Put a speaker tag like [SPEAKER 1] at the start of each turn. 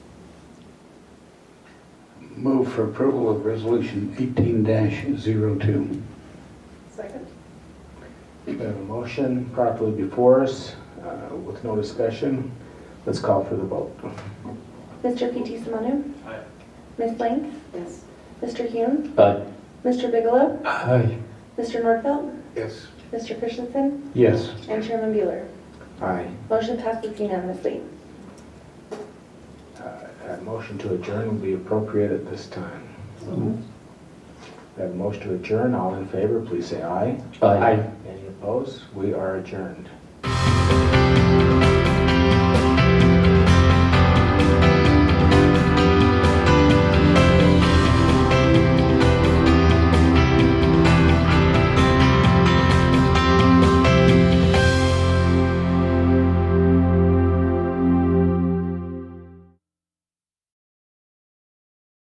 [SPEAKER 1] Move for approval of resolution 18-02.
[SPEAKER 2] Second.
[SPEAKER 3] We have a motion properly before us uh, with no discussion. Let's call for the vote.
[SPEAKER 4] Mr. PT Simonu.
[SPEAKER 5] Aye.
[SPEAKER 4] Ms. Link.
[SPEAKER 2] Yes.
[SPEAKER 4] Mr. Hume.
[SPEAKER 3] Aye.
[SPEAKER 4] Mr. Bigelow.
[SPEAKER 1] Aye.
[SPEAKER 4] Mr. Nordfeld.
[SPEAKER 1] Yes.
[SPEAKER 4] Mr. Christensen.
[SPEAKER 1] Yes.
[SPEAKER 4] And Chairman Bueller.
[SPEAKER 3] Aye.
[SPEAKER 4] Motion passes unanimously.
[SPEAKER 3] A Uh, motion to adjourn will be appropriate at this time. We have a motion to adjourn. All in favor, please say aye. Any opposed? We are adjourned.